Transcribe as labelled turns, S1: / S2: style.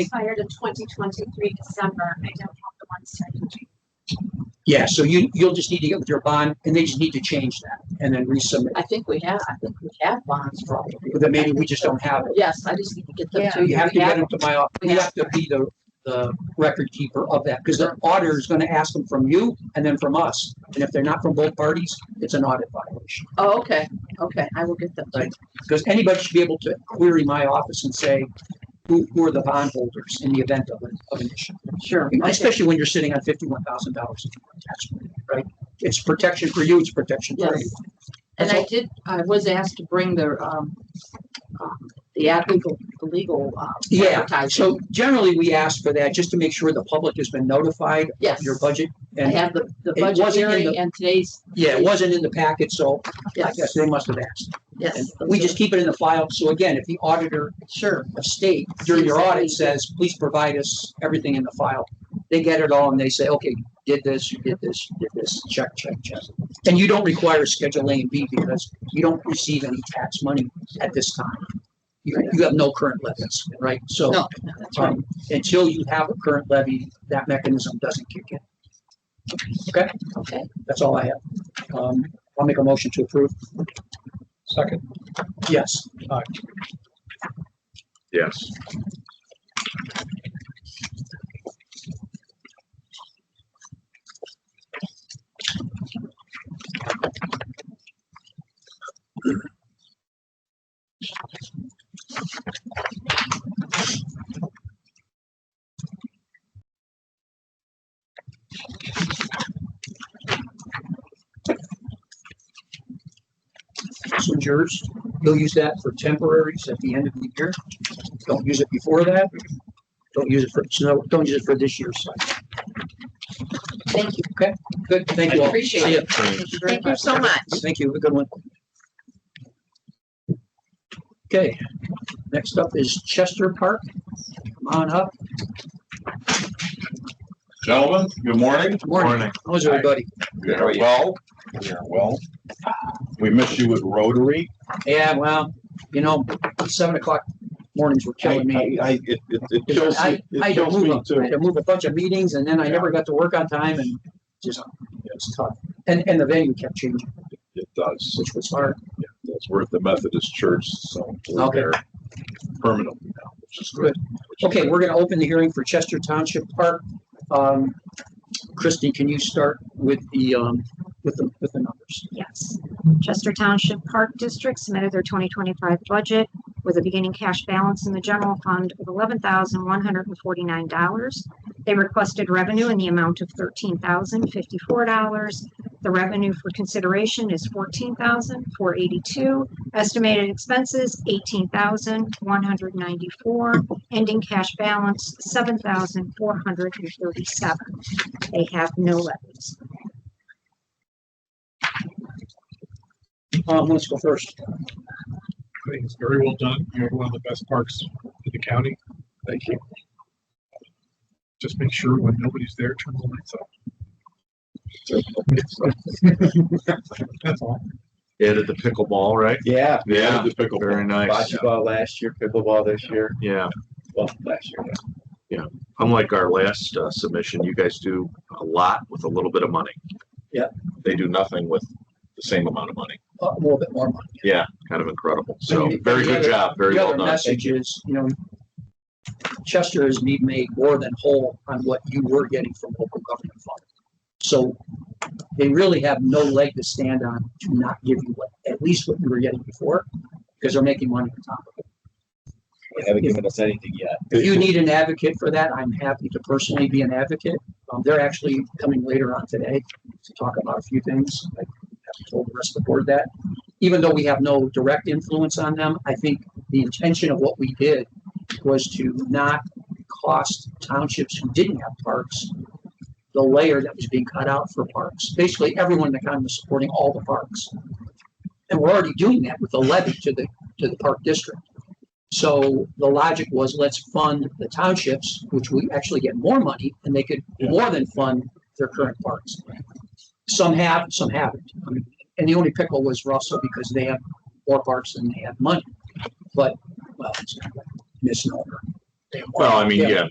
S1: expired in twenty twenty-three December. I don't have the one second.
S2: Yeah, so you, you'll just need to get with your bond and they just need to change that and then resubmit.
S3: I think we have, I think we have bonds for all of
S2: But then maybe we just don't have it.
S3: Yes, I just need to get them
S4: Yeah.
S3: to you.
S2: You have to
S3: We
S2: get them to my, office.
S3: we
S2: you have
S3: have-
S2: to be the, the record keeper of that because the auditor is going to ask them from you and then from us. And if they're not from both parties, it's an audit violation.
S3: Oh, okay, okay, I will get them. to you.
S2: Because anybody should be able to query my office and say, who, who are the bondholders in the event of an, of an issue?
S3: Sure. Okay.
S2: Especially when you're sitting on fifty-one thousand dollars in tax money, right? It's protection for you, it's protection for
S3: Yes.
S2: you.
S3: And I
S2: That's
S3: did, I was asked to bring their, um, um, the ad legal, the legal, uh,
S2: Yeah,
S3: advertising.
S2: So generally, we ask for that just to make sure the public has been notified
S3: Yes,
S2: of your budget.
S3: I
S2: And
S3: had the, the
S2: it
S3: budget
S2: wasn't in
S3: hearing
S2: the-
S3: and today's,
S2: yeah, it wasn't in the packet, so I
S3: yes,
S2: guess they must have asked. And
S3: yes.
S2: we
S3: those are-
S2: just keep it in the file. So again, if the auditor
S3: Sure,
S2: of state during your
S3: Sees that we-
S2: audit says, please provide us everything in the file, they get it all and they say, okay, you did this, you did this, you did this, check, check, check. And you don't require Schedule A and B because you don't receive any tax money at this time. You, you have no current levies, right? So.
S3: no, no, that's right.
S2: Um, until you have a current levy, that mechanism doesn't kick in. Okay,
S3: Okay,
S2: that's all I have. Um, I'll make a motion to approve.
S5: Second,
S2: Yes.
S6: Yes.
S2: This one's yours. You'll use that for temporaries at the end of the year. Don't use it before that. Don't use it for, so don't use it for this year's. cycle.
S3: thank you,
S2: Good, thank you all.
S3: Appreciate
S2: See ya.
S3: thank you very much.
S2: so much. Thank you. Have a good one. Okay, next up is Chester Park. Come on up.
S6: Gentlemen, good morning.
S2: Morning. How's everybody?
S6: We are well. We are well. We miss you at Rotary.
S2: Yeah, well, you know, seven o'clock mornings were
S6: I,
S2: killing me.
S6: I, it, it- it kills
S2: I,
S6: me.
S2: I
S6: It
S2: had to
S6: kills
S2: move,
S6: me
S2: a- I
S6: too.
S2: had to move a bunch of meetings and then I never got to work on time and just, it was tough. And, and the venue kept changing,
S6: It does.
S2: which was hard.
S6: It's worth the Methodist Church, so we're
S2: Okay.
S6: there permanently now, which is good. which is
S2: Okay,
S6: good.
S2: we're gonna open the hearing for Chester Township Park. Um, Christie, can you start with the, um, with the, with the numbers?
S1: Yes. Chester Township Park District submitted their twenty twenty-five budget with a beginning cash balance in the general fund of eleven thousand one hundred and forty-nine dollars. They requested revenue in the amount of thirteen thousand fifty-four dollars. The revenue for consideration is fourteen thousand four eighty-two. Estimated expenses eighteen thousand one hundred ninety-four. Ending cash balance seven thousand four hundred and thirty-seven. They have no levies.
S2: Um, let's go first.
S5: I think it's very well done. You have one of the best parks in the county. Thank you. Just make sure when nobody's there, turn the lights off. That's all.
S7: added the pickleball, right?
S8: Yeah,
S7: Yeah,
S6: The pickleball.
S7: very nice.
S8: bocce ball last year, pickleball this year,
S7: Yeah,
S8: well, last year. yeah.
S7: unlike our last uh, submission, you guys do a lot with a little bit of money.
S8: Yeah.
S7: They do nothing with the same amount of money.
S2: Uh, A little bit more money.
S7: Yeah, kind of incredible. So
S2: And the-
S7: very
S2: the
S7: good
S2: other-
S7: job, very
S2: The
S7: well
S2: other
S7: done.
S2: message is, you know, Chester has been made more than whole on what you were getting from local government funds. So they really have no leg to stand on to not give you what, at least what you were getting before, because they're making money on top of it.
S8: They haven't given us anything yet.
S2: If you need an advocate for that, I'm happy to personally be an advocate. Um, they're actually coming later on today to talk about a few things. I haven't told the rest of the board that. Even though we have no direct influence on them, I think the intention of what we did was to not cost townships who didn't have parks the layer that was being cut out for parks. Basically, everyone in the county was supporting all the parks. And we're already doing that with the levy to the, to the park district. So the logic was, let's fund the townships, which we actually get more money, and they could more than fund their current parks. Some have, some haven't. I mean, and the only pickle was Russell because they have more parks than they have money. But, well, it's kind of a misnomer. they want.
S7: Well, I mean,
S2: Yeah.
S7: yeah,